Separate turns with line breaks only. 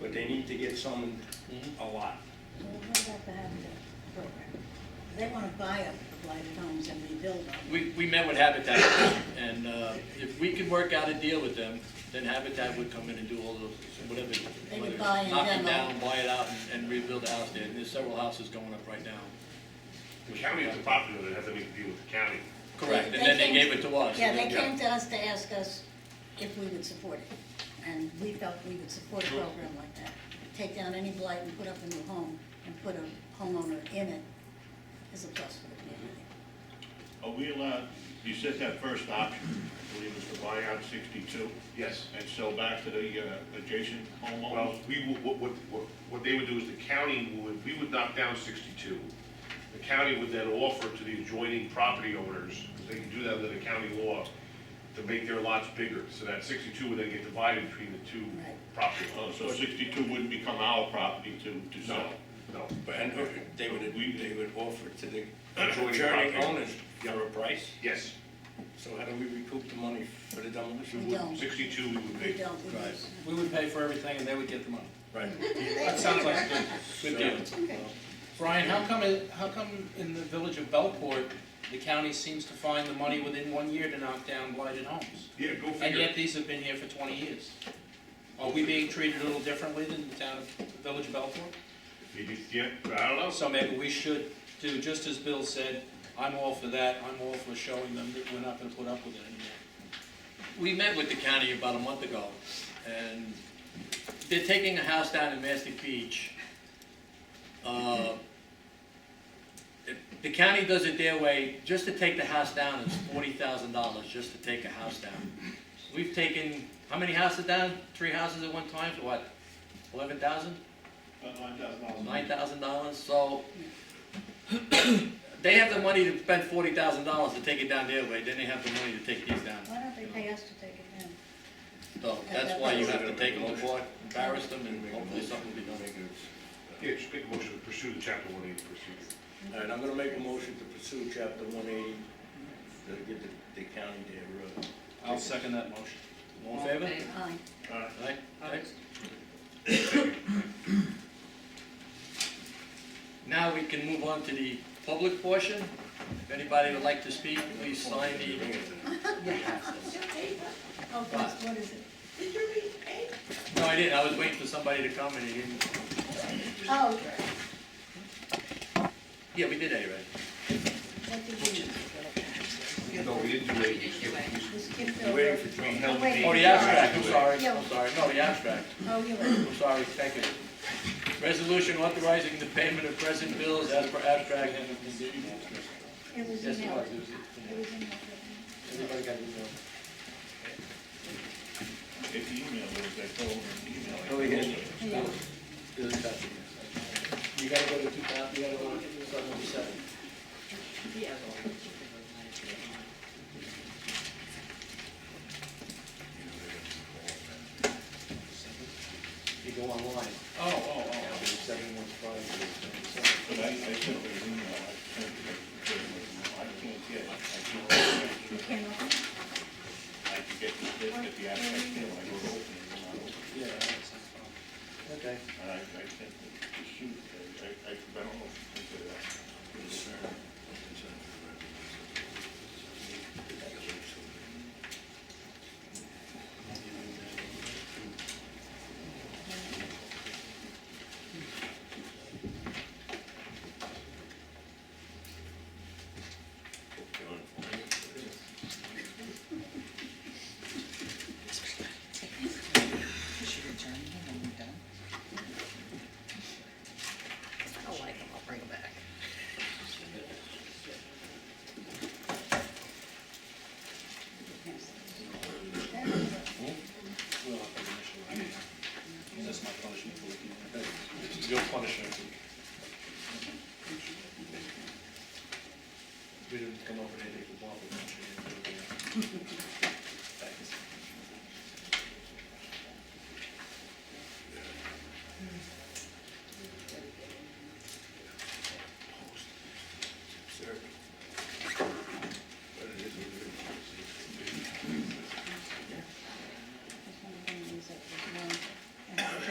but they need to get someone a lot.
Well, what about the Habitat program? They wanna buy up the blighted homes and rebuild them.
We, we met with Habitat, and uh, if we could work out a deal with them, then Habitat would come in and do all those, whatever.
They would
whether it's
buy and
Knock it
demo.
down, buy it out, and- and rebuild the house there, and there's several houses going up right now.
The county is the property owner, it has nothing to do with the county.
Correct, and then they
came-
gave it to us.
Yeah, they
Yeah.
came to us to ask us if we would support it, and we felt we would support a program like that. Take down any blight and put up a new home, and put a homeowner in it is a plus for the community.
Are we allowed, you said that first option, I believe was to buy out sixty-two
Yes.
and sell back to the uh, adjacent
Well,
homeowners?
we, would- what, what, what- what they would do is the county would, we would knock down sixty-two. The county would then offer to the adjoining property owners, because they can do that under the county law, to make their lots bigger, so that sixty-two would then get divided between the two
Right.
property
Uh,
owners.
So sixty-two wouldn't become our property to,
No,
to sell?
no.
But and uh, they would, they would offer to the adjoining
Joining
owners for a price.
Yes,
So how do we recoup the money for the demolition?
We don't,
sixty-two we would
we
make.
don't, we
Right.
lose.
We would pay for everything, and they would get the money.
Right.
That sounds like a good,
Good
Sure.
deal.
Okay.
Brian, how come, it- how come in the village of Belport, the county seems to find the money within one year to knock down blighted homes?
Yeah, go
And
figure.
yet these have been here for twenty years. Are we being treated a little differently than the town of, the village of Belport?
Maybe, yeah, I don't know.
So maybe we should do, just as Bill said, I'm all for that, I'm all for showing them that we're not gonna put up with it anymore.
We met with the county about a month ago, and they're taking a house down in Mastic Beach. Uh, if The county does it their way, just to take the house down is forty thousand dollars, just to take a house down. We've taken, how many houses down? Three houses at one time, for what, eleven thousand?
About nine thousand dollars.
nine thousand dollars, so they have the money to spend forty thousand dollars to take it down their way, then they have the money to take these down.
Why don't they pay us to take it down?
So that's why you have to take them to court, embarrass them, and hopefully something will be done.
Yeah, just make a motion to pursue the chapter one eighty procedure.
All right, I'm gonna make a motion to pursue chapter one eighty, to get the, the county their, uh,
I'll second that motion.
All in favor?
Aye.
Aye? Aye. Now we can move on to the public portion. If anybody would like to speak, please sign the.
Oh, God, what is it?
No, I didn't, I was waiting for somebody to come and he didn't.
Oh,
Yeah, we did that already.
what did you,
No, we didn't do it.
you skipped
You're
over?
waiting for John Held.
Oh, wait.
Oh, the abstract, I'm sorry,
Yeah.
I'm sorry, no, the abstract,
Oh, you're right.
I'm sorry, thank you. Resolution authorizing the payment of present bills as per abstract.
It was
Yes, it
emailed.
was.
It was emailed.
Everybody got it,
If you email it, they throw it in the email.
Oh, yeah.
Yeah.
though? It was about the- You gotta go to two thousand, you gotta go to seven oh seven. You go online,
Oh, oh, oh,
now,
oh.
seven oh one five.
but I, I sent it in email, I sent it in email. I can't get, it. I can't,
You
open it.
came up.
I can get this, this, get the abstract, you know, I go open it, and I open it.
Yeah, okay.
I, I think that the shoot, I, I, I don't know if you can do that.
I like them, I'll bring them back.
That's my punishment for looking at it.
Your punishment.